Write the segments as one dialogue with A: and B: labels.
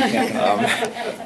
A: Um,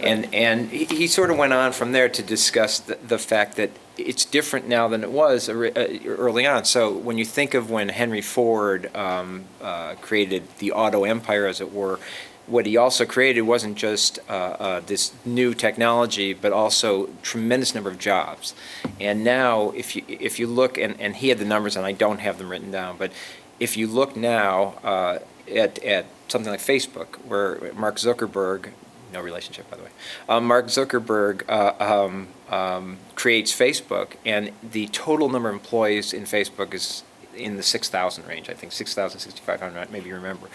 A: And, and he- he sort of went on from there to discuss the, the fact that it's different now than it was ori- uh, early on. So when you think of when Henry Ford um, uh, created the auto empire, as it were, what he also created wasn't just uh, uh, this new technology, but also tremendous number of jobs. And now, if you, if you look, and, and he had the numbers, and I don't have them written down, but if you look now uh, at, at something like Facebook, where Mark Zuckerberg, no relationship by the way, um, Mark Zuckerberg uh, um, um, creates Facebook, and the total number of employees in Facebook is in the 6,000 range, I think 6,000, 6,500, maybe you remember.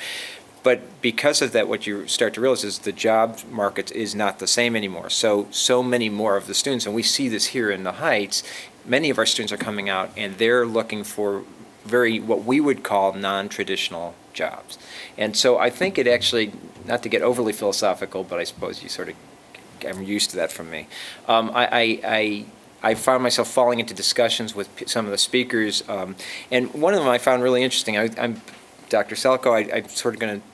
A: But because of that, what you start to realize is the job market is not the same anymore. So, so many more of the students, and we see this here in the Heights, many of our students are coming out and they're looking for very, what we would call non-traditional jobs. And so I think it actually, not to get overly philosophical, but I suppose you sort of, I'm used to that from me. Um, I, I, I, I found myself falling into discussions with p- some of the speakers, um, and one of them I found really interesting. I, I'm, Dr. Selko, I, I'm sort of going to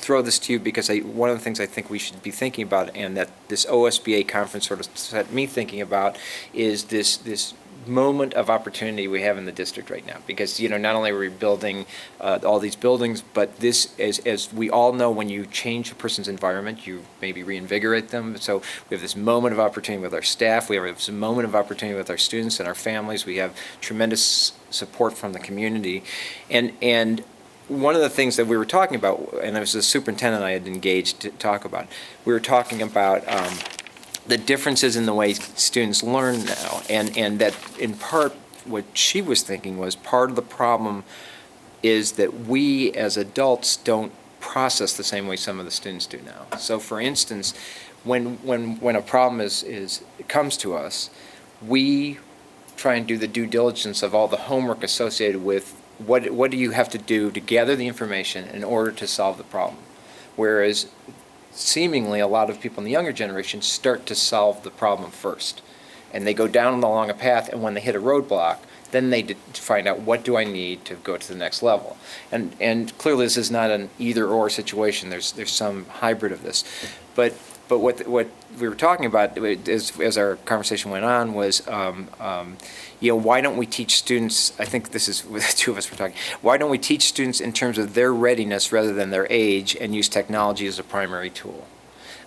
A: throw this to you because I, one of the things I think we should be thinking about and that this OSBA conference sort of set me thinking about is this, this moment of opportunity we have in the district right now. Because, you know, not only are we building uh, all these buildings, but this, as, as we all know, when you change a person's environment, you maybe reinvigorate them. So we have this moment of opportunity with our staff, we have this moment of opportunity with our students and our families. We have tremendous support from the community. And, and one of the things that we were talking about, and it was the superintendent I had engaged to talk about, we were talking about um, the differences in the way students learn now, and, and that in part, what she was thinking was part of the problem is that we as adults don't process the same way some of the students do now. So for instance, when, when, when a problem is, is, comes to us, we try and do the due diligence of all the homework associated with what, what do you have to do to gather the information in order to solve the problem? Whereas seemingly a lot of people in the younger generation start to solve the problem first. And they go down along a path, and when they hit a roadblock, then they d- find out what do I need to go to the next level. And, and clearly, this is not an either or situation. There's, there's some hybrid of this. But, but what, what we were talking about as, as our conversation went on was, um, um, you know, why don't we teach students? I think this is the two of us were talking. Why don't we teach students in terms of their readiness rather than their age, and use technology as a primary tool?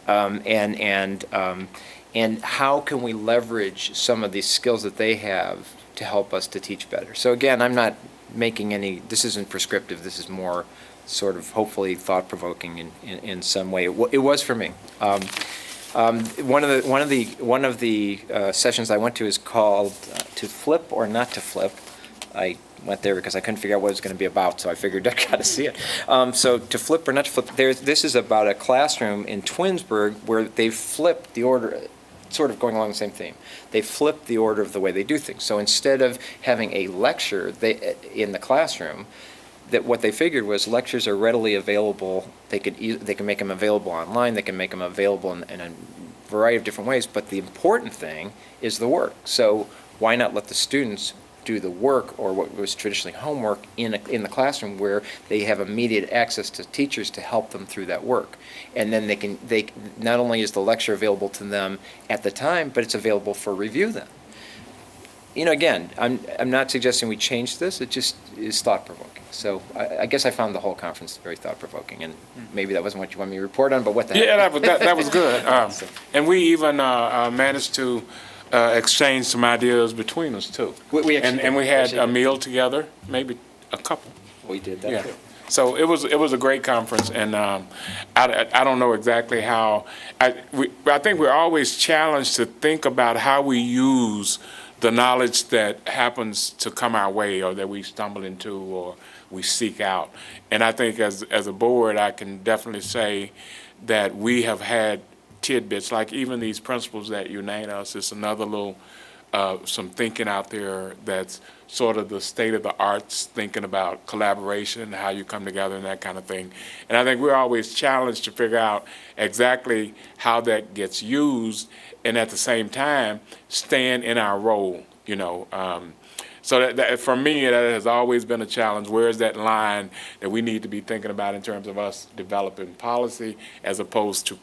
A: um, and and um, and how can we leverage some of these skills that they have to help us to teach better? So again, I'm not making any. This isn't prescriptive. This is more sort of hopefully thought provoking in, in, in some way. It, w- it was for me. Um, um, one of the one of the one of the uh, sessions I went to is called uh, "To Flip or Not to Flip." I went there because I couldn't figure out what it was going to be about, so I figured I got to see it. Um, so to flip or not to flip, there's, this is about a classroom in Twinsburg where they flipped the order, sort of going along the same theme. They flipped the order of the way they do things. So instead of having a lecture they, in the classroom, that what they figured was lectures are readily available. They could ea- they can make them available online. They can make them available in, in a variety of different ways. But the important thing is the work. So why not let the students do the work or what was traditionally homework in a, in the classroom where they have immediate access to teachers to help them through that work and then they can they not only is the lecture available to them at the time but it's available for review then you know, again, I'm, I'm not suggesting we change this, it just is thought-provoking. So I, I guess I found the whole conference very thought-provoking, and maybe that wasn't what you wanted me to report on, but what the heck.
B: Yeah, that was, that, that was good. Um, and we even uh, uh, managed to uh, exchange some ideas between us too.
A: We- we actually
B: and, and we
A: did.
B: had
A: Actually
B: a
A: did.
B: meal together, maybe a couple.
A: We did
B: Yeah.
A: that, too.
B: So it was it was a great conference, and um, I, I- I don't know exactly how I we, I think we're always challenged to think about how we use the knowledge that happens to come our way, or that we stumble into, or we seek out. And I think as as a board, I can definitely say that we have had tidbits like even these principles that unite us. It's another little uh, some thinking out there that's sort of the state of the arts, thinking about collaboration and how you come together and that kind of thing. And I think we're always challenged to figure out exactly how that gets used and at the same time, stand in our role, you know. Um, so that, that, for me, that has always been a challenge. Where is that line that we need to be thinking about in terms of us developing policy as opposed to